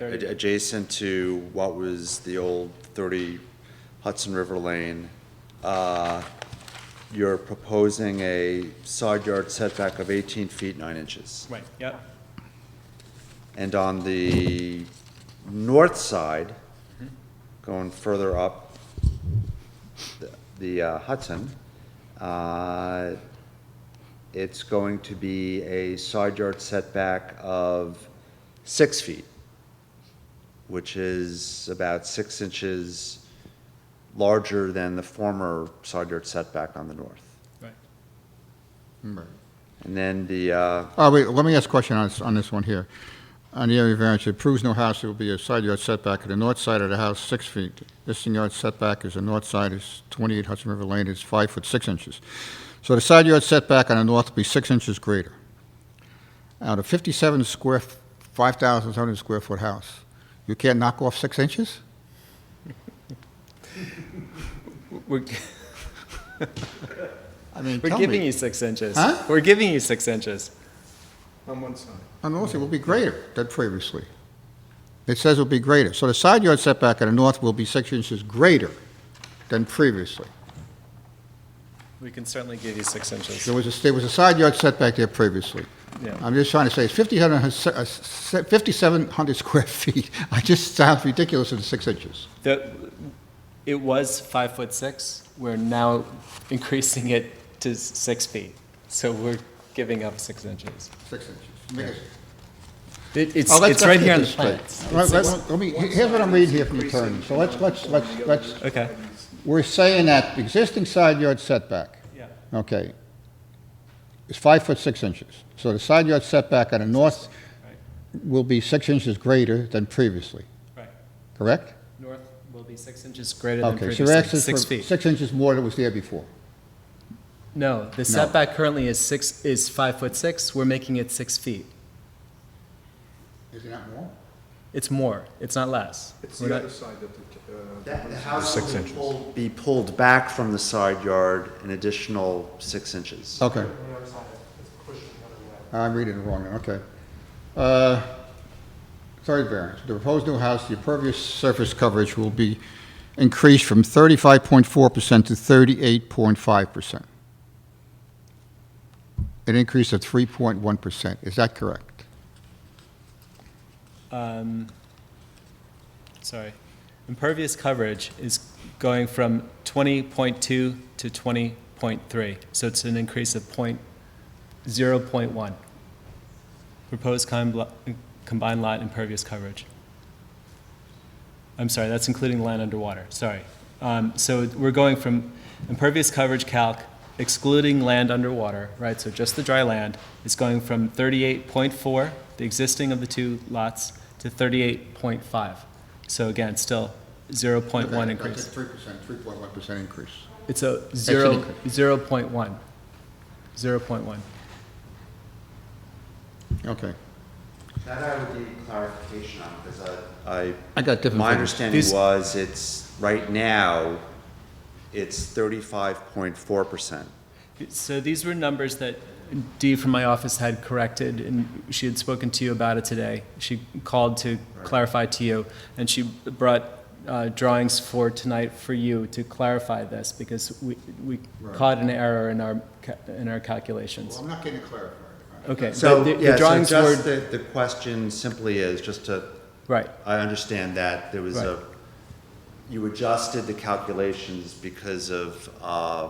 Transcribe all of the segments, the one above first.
Ad- Adjacent to what was the old 30 Hudson River Lane, uh, you're proposing a side yard setback of 18 feet 9 inches. Right, yep, And on the north side, going further up the- the uh, Hudson, uh, it's going to be a side yard setback of six feet, which is about six inches larger than the former side yard setback on the north. right. And then the, uh, Oh, wait, let me ask a question on this, on this one here. On the area variance, it proves no house, it will be a side yard setback at the north side of the house, six feet. Existing yard setback is the north side is 28 Hudson River Lane is five foot six inches. So the side yard setback on the north will be six inches greater. Out of 57 square, 5,700 square foot house, you can't knock off six inches? We're, I mean, we're tell giving me. you six inches. Huh? We're giving you six inches. on one side. On the north, it will be greater than previously. It says it will be greater. So the side yard setback on the north will be six inches greater than previously. We can certainly give you six inches. There was a, there was a side yard setback there previously. Yeah. I'm just trying to say, it's uh, 5,700 5,700 square feet. I just sounds ridiculous in six inches. The, it was five foot six, we're now increasing it to s- six feet. So we're giving up six inches. Six inches. It, it's, Oh, let's- it's right let's here on the get plan. this straight. Let- let- let me- here's what I'm reading here from the attorney. So let's, let's, let's, let's, Okay. we're saying that existing side yard setback, Yeah. okay, is five foot six inches. So the side yard setback on the north Right. will be six inches greater than previously, Right. correct? North will be six inches greater than Okay, so we're previously, actually six for feet. six inches more than was there before. No, the setback currently is six, is five foot six, we're making it six feet. Is it not more? It's more, it's not less. It's We're the not- other side that the, uh, That, the house Six will inches. pull- be pulled back from the side yard an additional six inches. Okay. I'm reading it wrong, then, okay. Uh, Third variance, the proposed new house, the impervious surface coverage will be increased from 35.4% to 38.5%. An increase of 3.1%, is that correct? um, sorry, impervious coverage is going from 20.2 to 20.3, so it's an increase of point, 0.1. Proposed com- combined lot impervious coverage. I'm sorry, that's including land underwater, sorry. Um, So we're going from impervious coverage calc excluding land underwater, right, so just the dry land, is going from 38.4, the existing of the two lots, to 38.5. So again, still 0.1 increase. 3%, 3.1% increase. It's a zero, increase. 0.1. 0.1. Okay. That I would need clarification on, because I. I got different My figures. understanding These- was it's, right now, it's thirty-five point four percent. So these were numbers that Dee from my office had corrected, and she had spoken to you about it today. She called to clarify to you, and she brought uh, drawings for tonight for you to clarify this, because we, we caught an error in our, ca- in our calculations. I'm not getting clarified. Okay, So, but the- yeah, so the drawings just were, the, the question simply is, just to, right, I understand that there was a, Right. you adjusted the calculations because of, uh,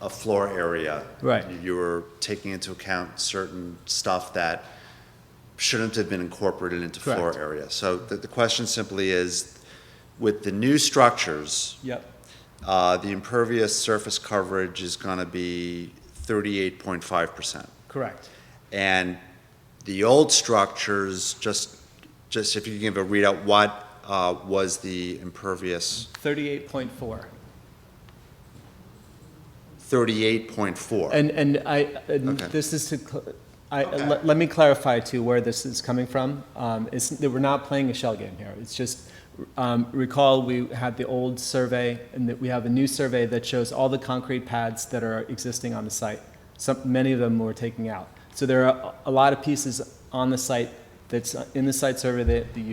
a floor area. Right. You were taking into account certain stuff that shouldn't have been incorporated into floor Correct. area. So the, the question simply is, with the new structures, yep, uh, the impervious surface coverage is gonna be thirty-eight point five percent. correct. And the old structures, just, just if you can give a readout, what uh, was the impervious? 38.4. Thirty-eight point four. And, and I, and Okay. this is to, cl- I, let let me clarify too where this is coming from. Um, It's, that we're not playing a shell game here. It's just, um, recall, we had the old survey, and that we have a new survey that shows all the concrete pads that are existing on the site. Some, many of them we're taking out. So there are a lot of pieces on the site that's in the site survey that that you